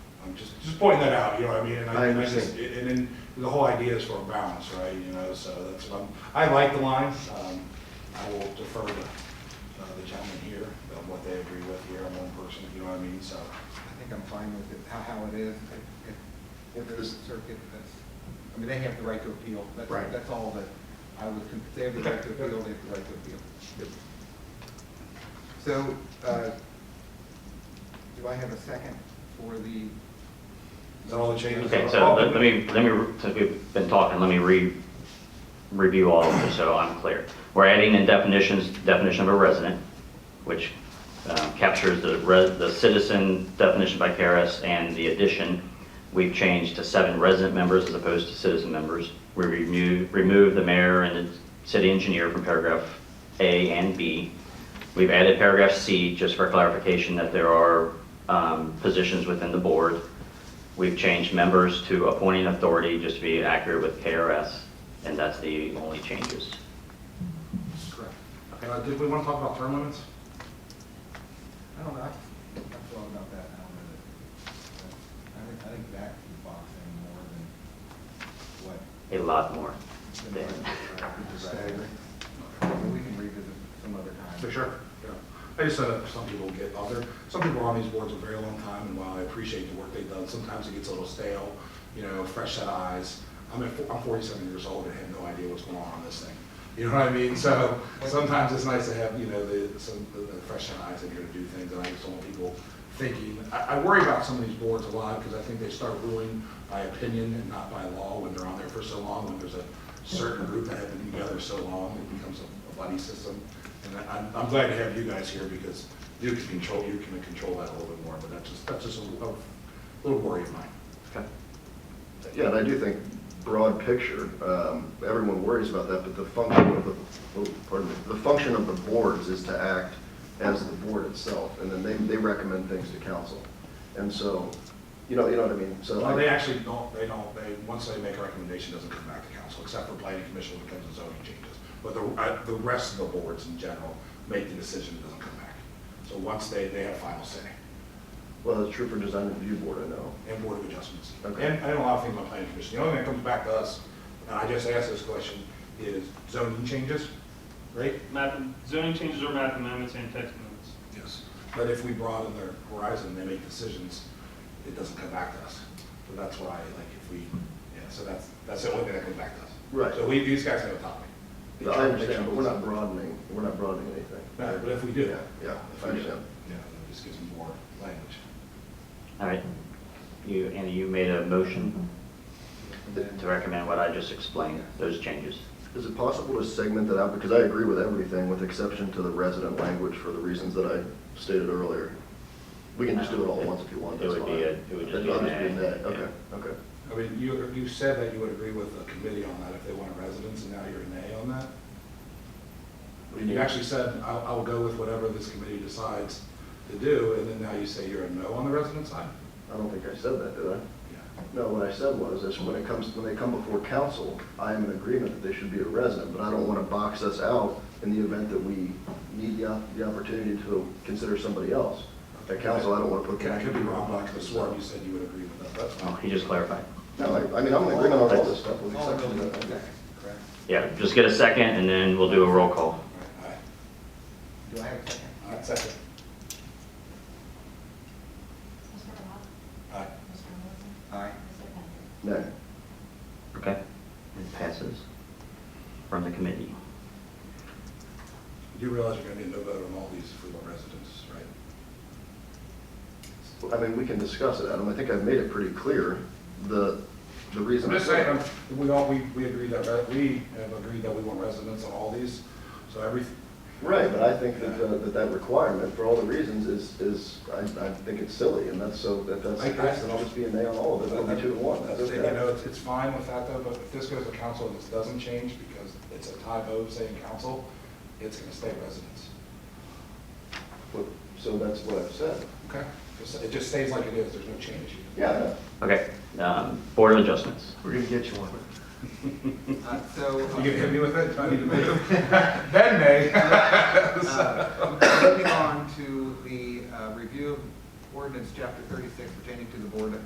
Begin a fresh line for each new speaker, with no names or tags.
just, just pointing that out, you know what I mean? And
I
and just-
understand.
And then the whole idea is for a balance, right, you know, so that's what I'm, I like the lines. Um, I will defer to uh, the gentleman here, on what they agree with here, I'm one person, you know what I mean, so.
I think I'm fine with it, how, how it is, if- if, if there's a circuit that's, I mean, they have the right to appeal. That's-
Right.
That's all that I would, con- they have the right to appeal, they have the right to appeal. So, uh, do I have a second for the?
Is that all the changes?
Okay, so let let me, let me, re- since we've been talking, let me re, review all of this so I'm clear. We're adding in definitions, definition of a resident, which um, captures the res, the citizen definition by Karis, and the addition, we've changed to seven resident members as opposed to citizen members. We remove, remove the mayor and the city engineer from paragraph A and B. We've added paragraph C, just for clarification, that there are um, positions within the board. We've changed members to appointing authority, just to be accurate with KRS, and that's the only changes.
Correct.
Uh, Did we want to talk about term limits?
I don't know, I've I've thought about that, I don't know that, that- I think, I think that can box in more than what.
A lot more.
than
than-
what, uh, we just-
I agree.
We can revisit some other time.
For sure, yeah. I just said that some people get other, some people are on these boards a very long time, and while I appreciate the work they've done, sometimes it gets a little stale, you know, fresh set of eyes. I'm at, I'm forty-seven years old and have no idea what's going on on this thing. You know what I mean? So sometimes it's nice to have, you know, the, some, the the fresh set of eyes in here to do things, and I just don't want people thinking. I, I worry about some of these boards a lot, because I think they start ruling by opinion and not by law when they're on there for so long, when there's a certain group that have been together so long, it becomes a a buddy system. And I- I'm, I'm glad to have you guys here because you can control, you can control that a little bit more, but that's just, that's just a little, a little worry of mine.
Okay.
Yeah, and I do think broad picture, um, everyone worries about that, but the function of the, oh, pardon me, the function of the boards is to act as the board itself, and then they, they recommend things to council. And so, you know, you know what I mean? So
Well,
I-
they actually don't, they don't, they, once they make a recommendation, it doesn't come back to council, except for planning commission when it comes to zoning changes. But the, uh, the rest of the boards in general make the decision, it doesn't come back. So once they, they have final say,
well, it's true for design review board, I know.
and board of adjustments. And,
Okay.
and a lot of things on planning commission, the only thing that comes back to us, and I just asked this question, is zoning changes, right?
Map, zoning changes are map amendments and text amendments.
Yes, but if we broaden their horizon, they make decisions, it doesn't come back to us. So that's why, like, if we, yeah, so that's, that's the only thing that comes back to us.
Right.
So we, these guys have a topic. They
I
try to make
understand,
sure
but we're not
it's-
broadening, we're not broadening anything.
No, But if we do.
Yeah, yeah,
If
I
we do,
understand.
Yeah, it just gives them more language.
All right. You, Andy, you made a motion to recommend what I just explained, those changes.
Is it possible to segment that out? Because I agree with everything with exception to the resident language for the reasons that I stated earlier. We can just do it all at once if you want,
It
that's
would
fine.
be a- it would just
That'd
be an
just
add,
add.
yeah.
Okay, okay.
I mean, you, you said that you would agree with the committee on that if they wanted residents, and now you're an A on that? You actually said, I'll, I'll go with whatever this committee decides to do, and then now you say you're a no on the resident side?
I don't think I said that, did I?
Yeah.
No, what I said was, is when it comes, when they come before council, I am in agreement that they should be a resident, but I don't want to box us out in the event that we need the, op- the opportunity to consider somebody else. At council, I don't want to put.
Okay, I could be wrong, but I could have sworn you said you would agree with that, that's
Oh,
fine.
He just clarified.
No, I, I mean, I'm in agreement on all this stuff
Oh,
with
All
exception
Oh, really,
to
okay,
that.
correct.
Yeah, just get a second, and then we'll do a roll call.
Aye.
Do I have a second?
Aye, second.
Mr. Rock?
Aye.
Mr. Wilson?
Aye.
Mr. Bender?
No.
Okay? It passes from the committee.
You realize you're gonna need a no vote on all these if we want residents, right?
I mean, we can discuss it, Adam. I think I've made it pretty clear, the, the reason.
I'm just saying, um, we all, we, we agree that, re- we have agreed that we want residents on all these, so every,
Right, but I think that, uh, that that requirement, for all the reasons, is, is, I, I think it's silly, and that's so, that that's,
I- I-
I'll just be a nay on all of it, it'll be two to one, that's
You know,
okay.
it's, it's fine with that though, but if this goes to council and this doesn't change because it's a tie vote saying council, it's gonna stay residents.
But- So that's what I've said.
Okay. Just- It just stays like it is, there's no change.
Yeah, I know.
Okay, um, Board of Adjustments.
We're gonna get you one.
Uh, So.
You gonna hit me with it? I need to move. Ben may.
Uh, Moving on to the uh, review of ordinance chapter thirty-six pertaining to the board